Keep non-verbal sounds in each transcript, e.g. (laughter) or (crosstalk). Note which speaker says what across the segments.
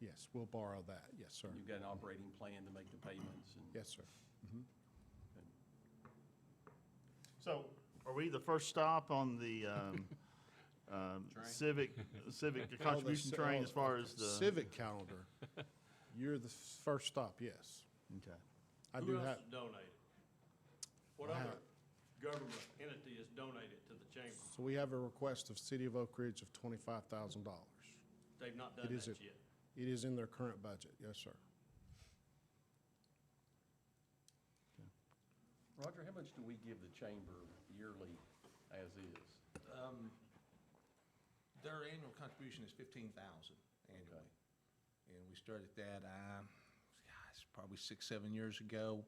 Speaker 1: Yes, we'll borrow that. Yes, sir.
Speaker 2: You've got an operating plan to make the payments and.
Speaker 1: Yes, sir.
Speaker 3: So are we the first stop on the um, um,
Speaker 2: Train?
Speaker 3: civic, civic
Speaker 1: All the
Speaker 3: contribution
Speaker 1: ci-
Speaker 3: train
Speaker 1: all-
Speaker 3: as far as the?
Speaker 1: Civic calendar, you're the first stop, yes.
Speaker 3: Okay.
Speaker 1: I do
Speaker 4: Who else
Speaker 1: have,
Speaker 4: has donated? What
Speaker 1: I
Speaker 4: other
Speaker 1: have-
Speaker 4: government entity has donated to the chamber?
Speaker 1: so we have a request of City of Oak Ridge of twenty-five thousand dollars.
Speaker 4: They've not
Speaker 1: It
Speaker 4: done
Speaker 1: is,
Speaker 4: that
Speaker 1: it
Speaker 4: yet.
Speaker 1: is in their current budget, yes, sir.
Speaker 2: Roger, how much do we give the chamber yearly as is?
Speaker 5: Their annual contribution is fifteen thousand annually. And we started that, um, gosh, probably six, seven years ago.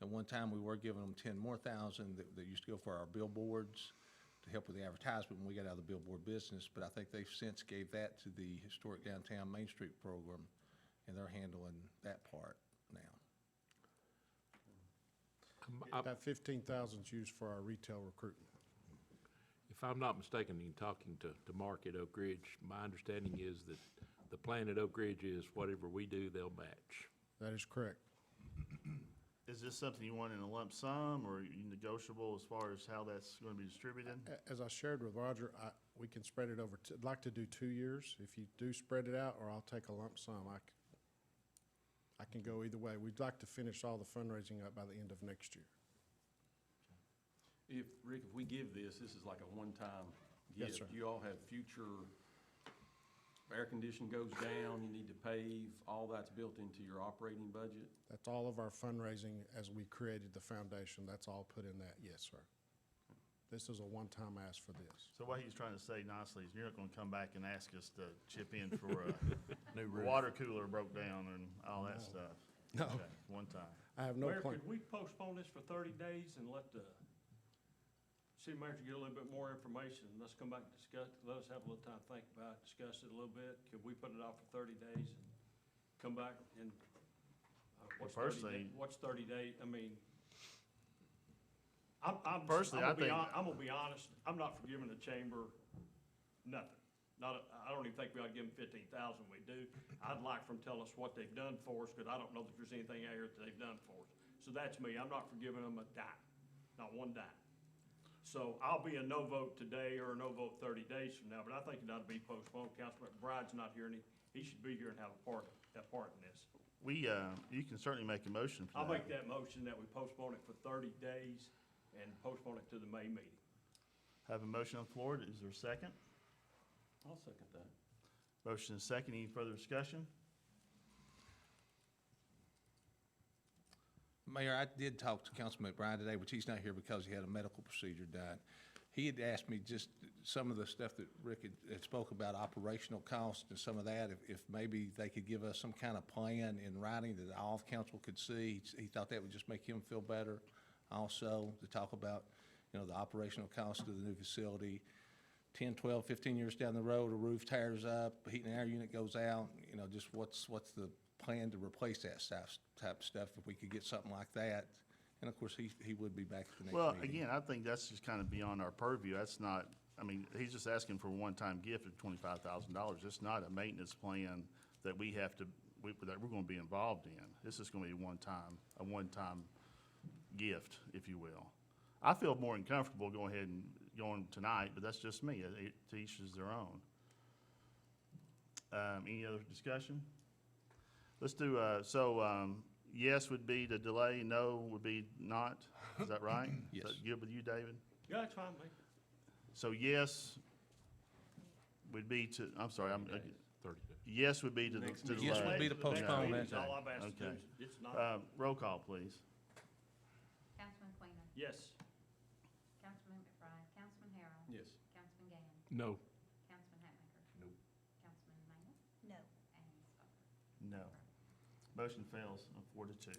Speaker 5: At one time, we were giving them ten more thousand that, that used to go for our billboards to help with the advertisement when we got out of the billboard business. But I think they've since gave that to the Historic Downtown Main Street Program, and they're handling that part now.
Speaker 6: I'm- I-
Speaker 1: That fifteen thousand is used for our retail recruitment.
Speaker 6: If I'm not mistaken, in talking to, to Mark at Oak Ridge, my understanding is that the plan at Oak Ridge is whatever we do, they'll match.
Speaker 1: That is correct.
Speaker 3: Is this something you want in a lump sum or you negotiable as far as how that's going to be distributed?
Speaker 1: A- As I shared with Roger, I, we can spread it over, t- I'd like to do two years. If you do spread it out, or I'll take a lump sum, I, c- I can go either way. We'd like to finish all the fundraising up by the end of next year.
Speaker 2: If, Rick, if we give this, this is like a one-time
Speaker 1: Yes,
Speaker 2: gift.
Speaker 1: sir.
Speaker 2: You all have future, air condition goes down, you need to pave, all that's built into your operating budget?
Speaker 1: That's all of our fundraising as we created the foundation. That's all put in that, yes, sir. This is a one-time ask for this.
Speaker 3: So what he's trying to say nicely is you're not going to come back and ask us to chip in for a
Speaker 1: (laughs)
Speaker 3: water cooler broke down and all that stuff.
Speaker 1: No.
Speaker 3: Okay, One time.
Speaker 1: I have no
Speaker 4: Mayor,
Speaker 1: plan.
Speaker 4: could we postpone this for thirty days and let the city manager get a little bit more information? Let's come back and discuss, let us have a little time to think about, it, discuss it a little bit. Could we put it off for thirty days and come back and, uh, what's thirty,
Speaker 3: personally-
Speaker 4: day- what's thirty day, I mean, I'm, I'm, I'm
Speaker 3: Personally, I
Speaker 4: gonna be
Speaker 3: think-
Speaker 4: hon, I'm gonna be honest, I'm not forgiving the chamber nothing. Not, a- I don't even think we ought to give them fifteen thousand, we do. I'd like for them to tell us what they've done for us, because I don't know that there's anything out here that they've done for us. So that's me, I'm not forgiving them a dime, not one dime. So I'll be a no vote today or a no vote thirty days from now, but I think it ought to be postponed. Councilman McBride's not here, and he, he should be here and have a part, that part in this.
Speaker 3: We, uh, you can certainly make a motion for that.
Speaker 4: I'll make that motion that we postpone it for thirty days and postpone it to the May meeting.
Speaker 3: Have a motion on the floor. Is there a second?
Speaker 2: I'll second that.
Speaker 3: Motion is second. Any further discussion?
Speaker 5: Mayor, I did talk to Councilman McBride today, which he's not here because he had a medical procedure done. He had asked me just some of the stuff that Rick had- had spoke about, operational costs and some of that, if- if maybe they could give us some kind of plan in writing that all of council could see. He thought that would just make him feel better also, to talk about, you know, the operational cost of the new facility. 10, 12, 15 years down the road, a roof tears up, heat and air unit goes out, you know, just what's, what's the plan to replace that stuff, type of stuff, if we could get something like that? And of course, he, he would be back at the next meeting.
Speaker 3: Well, again, I think that's just kind of beyond our purview. That's not, I mean, he's just asking for a one-time gift of twenty-five thousand dollars. It's not a maintenance plan that we have to, we, that we're gonna be involved in. This is gonna be a one-time, a one-time gift, if you will. I feel more uncomfortable going ahead and going tonight, but that's just me. It- it- To each is their own. Um, any other discussion? Let's do, uh, so, um, yes would be to delay, no would be not. Is that right?
Speaker 5: Yes.
Speaker 3: Is that good with you, David?
Speaker 4: Yeah, that's fine, Lee.
Speaker 3: So yes would be to, I'm sorry, I'm,
Speaker 6: Thirty days.
Speaker 3: yes would be to to
Speaker 2: Next meeting.
Speaker 3: delay.
Speaker 5: Yes would be to
Speaker 4: The next
Speaker 5: postpone
Speaker 4: meeting
Speaker 5: that.
Speaker 4: is All I've asked to do is,
Speaker 3: Okay.
Speaker 4: it's not,
Speaker 3: Um, roll call, please.
Speaker 7: Councilman Quainer,
Speaker 4: yes.
Speaker 7: Councilman McBride, Councilman Harrell.
Speaker 2: Yes.
Speaker 7: Councilman Gann,
Speaker 6: No.
Speaker 7: Councilman Hatmaker.
Speaker 2: Nope.
Speaker 7: Councilman Maynard
Speaker 8: No.
Speaker 7: and Stover.
Speaker 3: No. Motion fails on four to two.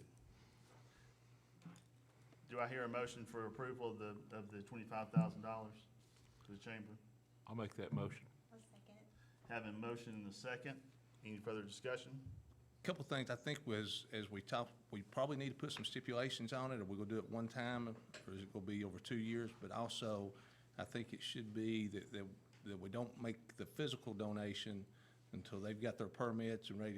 Speaker 3: Do I hear a motion for approval of the, of the twenty-five thousand dollars to the chamber?
Speaker 6: I'll make that motion.
Speaker 8: I'll second.
Speaker 3: Having motion in the second. Any further discussion?
Speaker 5: Couple things I think was, as we talked, we probably need to put some stipulations on it, Are we gonna do it one time, or is it gonna be over two years? But also, I think it should be that, that, that we don't make the physical donation until they've got their permits and ready